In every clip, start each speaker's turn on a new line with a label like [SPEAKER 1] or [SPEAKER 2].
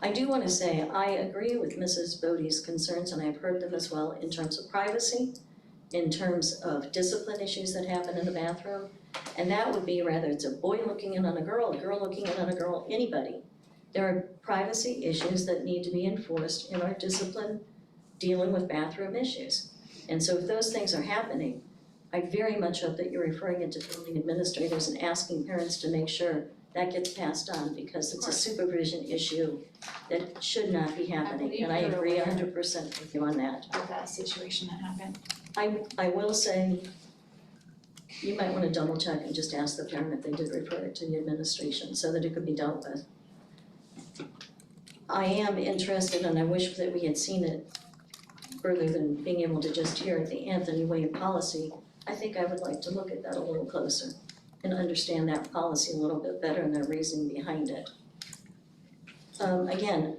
[SPEAKER 1] I do want to say, I agree with Mrs. Bodie's concerns, and I've heard them as well, in terms of privacy, in terms of discipline issues that happen in the bathroom. And that would be rather it's a boy looking in on a girl, a girl looking in on a girl, anybody. There are privacy issues that need to be enforced in our discipline dealing with bathroom issues. And so if those things are happening, I very much hope that you're referring it to building administrators and asking parents to make sure that gets passed on because it's a
[SPEAKER 2] Of course.
[SPEAKER 1] supervision issue that should not be happening,
[SPEAKER 2] believe
[SPEAKER 1] and I
[SPEAKER 2] you're
[SPEAKER 1] agree
[SPEAKER 2] aware.
[SPEAKER 1] hundred percent with you on that.
[SPEAKER 2] with that situation that happened.
[SPEAKER 1] I I will say, you might wanna double check and just ask the parent if they did refer it to the administration so that it could be dealt with. I am interested and I wish that we had seen it further than being able to just hear the Anthony Way policy. I think I would like to look at that a little closer and understand that policy a little bit better and the reasoning behind it. Um again,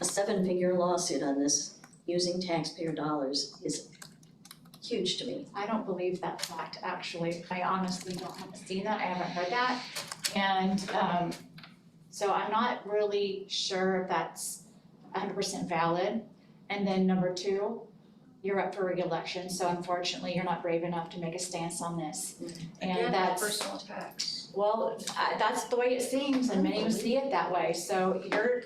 [SPEAKER 1] a seven-figure lawsuit on this using taxpayer dollars is huge to me.
[SPEAKER 2] I don't believe that fact, actually. I honestly don't have seen that. I haven't heard that. And um so I'm not really sure if that's hundred percent valid. And then number two, you're up for reelection, so unfortunately, you're not brave enough to make a stance on this. And that's
[SPEAKER 3] personal attacks.
[SPEAKER 2] Well, I- that's the way it seems and many see it that way, so you're,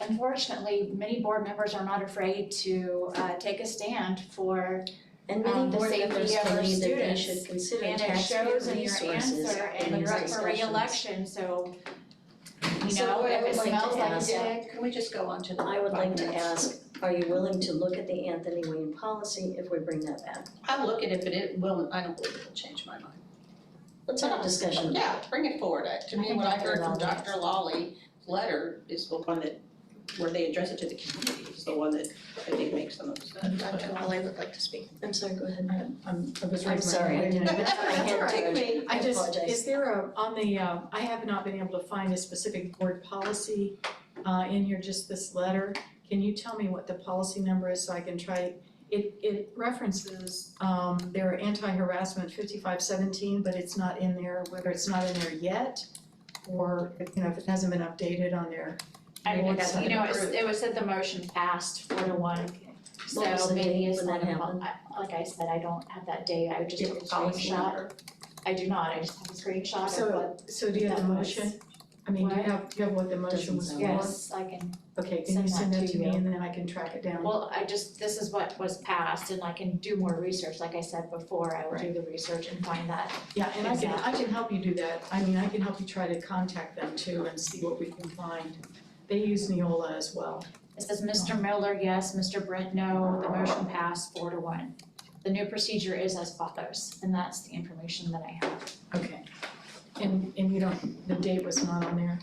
[SPEAKER 2] unfortunately, many board members are not afraid to uh take a stand for
[SPEAKER 1] And many
[SPEAKER 2] Um,
[SPEAKER 1] board
[SPEAKER 2] safety
[SPEAKER 1] members
[SPEAKER 2] of our
[SPEAKER 1] believe that they
[SPEAKER 2] students.
[SPEAKER 1] should consider
[SPEAKER 2] and it
[SPEAKER 1] taxpayer resources
[SPEAKER 2] shows in
[SPEAKER 1] in
[SPEAKER 2] your
[SPEAKER 1] these
[SPEAKER 2] answer and you're up for
[SPEAKER 1] discussions.
[SPEAKER 2] reelection, so you know, if it smells like
[SPEAKER 1] ask-
[SPEAKER 2] dick,
[SPEAKER 3] Can we just go on to the?
[SPEAKER 1] I would like to ask, are you willing to look at the Anthony Wayne policy if we bring that back?
[SPEAKER 3] I'll look at it, but it will, I don't believe it'll change my mind.
[SPEAKER 1] Let's have a discussion.
[SPEAKER 3] Yeah, bring it forward. I- To
[SPEAKER 2] I
[SPEAKER 3] me,
[SPEAKER 2] think
[SPEAKER 3] what I
[SPEAKER 2] Dr.
[SPEAKER 3] heard from
[SPEAKER 2] Lawley's-
[SPEAKER 3] Dr. Lawley's letter is the one that, where they address it to the community, is the one that I think makes the most sense.
[SPEAKER 4] Dr. Lally would like to speak.
[SPEAKER 1] I'm sorry, go ahead.
[SPEAKER 4] I'm, I was
[SPEAKER 1] I'm
[SPEAKER 4] raising my
[SPEAKER 1] sorry, I
[SPEAKER 4] hand.
[SPEAKER 1] didn't.
[SPEAKER 3] That's all right. Take me.
[SPEAKER 4] I just,
[SPEAKER 1] apologize.
[SPEAKER 4] is there a, on the, uh, I have not been able to find a specific board policy uh, in here, just this letter. Can you tell me what the policy number is so I can try? It, it references um, their anti-harassment fifty-five seventeen, but it's not in there, whether it's not in there yet or, if, you know, if it hasn't been updated on there.
[SPEAKER 2] I mean,
[SPEAKER 4] Board
[SPEAKER 2] you know,
[SPEAKER 4] side.
[SPEAKER 2] it it was said the motion passed four to one.
[SPEAKER 1] What was
[SPEAKER 2] So
[SPEAKER 1] the
[SPEAKER 2] maybe
[SPEAKER 1] date
[SPEAKER 2] it's
[SPEAKER 1] when
[SPEAKER 2] not,
[SPEAKER 1] that
[SPEAKER 2] a mo-
[SPEAKER 1] happened?
[SPEAKER 2] I- like I said, I don't have that date, I just
[SPEAKER 3] Give
[SPEAKER 2] took a
[SPEAKER 3] it a
[SPEAKER 2] screenshot. I do not, I just have a screenshot of
[SPEAKER 4] So,
[SPEAKER 2] what,
[SPEAKER 4] so do you have the
[SPEAKER 2] That was-
[SPEAKER 4] motion? I mean, do you
[SPEAKER 2] What?
[SPEAKER 4] have, do you have what the
[SPEAKER 1] Doesn't
[SPEAKER 4] motion was for?
[SPEAKER 1] sound-
[SPEAKER 2] yes, I can,
[SPEAKER 4] Okay, can you
[SPEAKER 2] Send
[SPEAKER 4] send
[SPEAKER 2] that
[SPEAKER 4] that
[SPEAKER 2] to
[SPEAKER 4] to me
[SPEAKER 2] you.
[SPEAKER 4] and then I can track it down?
[SPEAKER 2] well, I just, this is what was passed and I can do more research, like I said before, I will do the research and find that.
[SPEAKER 4] Yeah, and I can,
[SPEAKER 2] Exactly.
[SPEAKER 4] I can help you do that. I mean, I can help you try to contact them too and see what we can find. They use Neola as well.
[SPEAKER 2] It says Mr. Miller, yes, Mr. Brent, no, the motion passed four to one. The new procedure is as follows, and that's the information that I have.
[SPEAKER 4] Okay. And, and you don't, the date was not on there?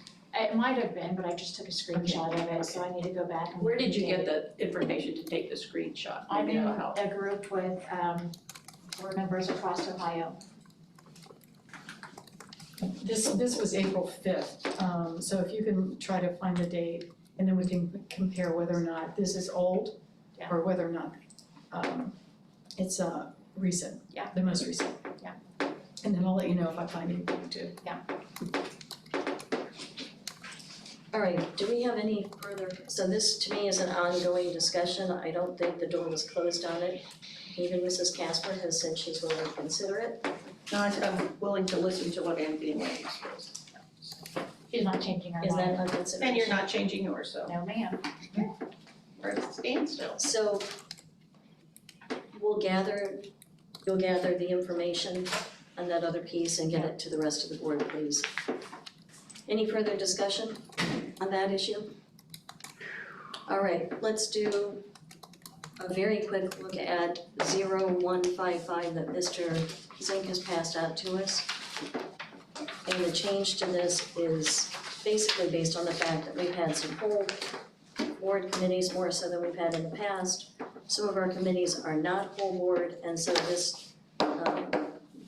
[SPEAKER 2] It might have been, but I just took a screenshot of it, so I need to go back and.
[SPEAKER 3] Where did you
[SPEAKER 2] date
[SPEAKER 3] get
[SPEAKER 2] it.
[SPEAKER 3] the information to take the screenshot?
[SPEAKER 2] I'm
[SPEAKER 3] Maybe
[SPEAKER 2] in
[SPEAKER 3] that'll help.
[SPEAKER 2] a group with um board members across Ohio.
[SPEAKER 4] This, this was April fifth, um, so if you can try to find the date and then we can compare whether or not this is old
[SPEAKER 2] Yeah.
[SPEAKER 4] or whether or not, um, it's, uh, recent.
[SPEAKER 2] Yeah.
[SPEAKER 4] The most recent.
[SPEAKER 2] Yeah.
[SPEAKER 4] And then I'll let you know if I find anything too.
[SPEAKER 1] All right, do we have any further, so this to me is an ongoing discussion, I don't think the door was closed on it. Even Mrs. Casper has said she's willing to consider it.
[SPEAKER 3] No, I said I'm willing to listen to what Anthony Wayne says.
[SPEAKER 2] She's not changing her mind.
[SPEAKER 1] Is that on consideration?
[SPEAKER 3] And you're not changing yours, so
[SPEAKER 2] No, ma'am.
[SPEAKER 3] we're at a standstill.
[SPEAKER 1] So we'll gather, you'll gather the information on that other piece and get it to the rest of the board, please. Any further discussion on that issue? All right, let's do a very quick look at zero one five five that Mr. Zink has passed out to us. And the change to this is basically based on the fact that we've had some hold board committees more so than we've had in the past. Some of our committees are not full board, and so this um,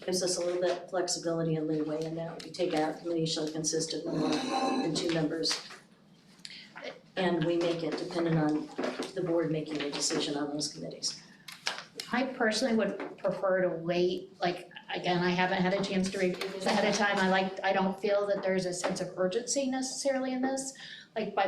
[SPEAKER 1] gives us a little bit of flexibility and leeway in that. We take out committee shall consist of no more than two members. And we make it dependent on the board making a decision on those committees.
[SPEAKER 5] I personally would prefer to wait, like, again, I haven't had a chance to review this ahead of time, I like, I don't feel that there's a sense of urgency necessarily in this. Like, by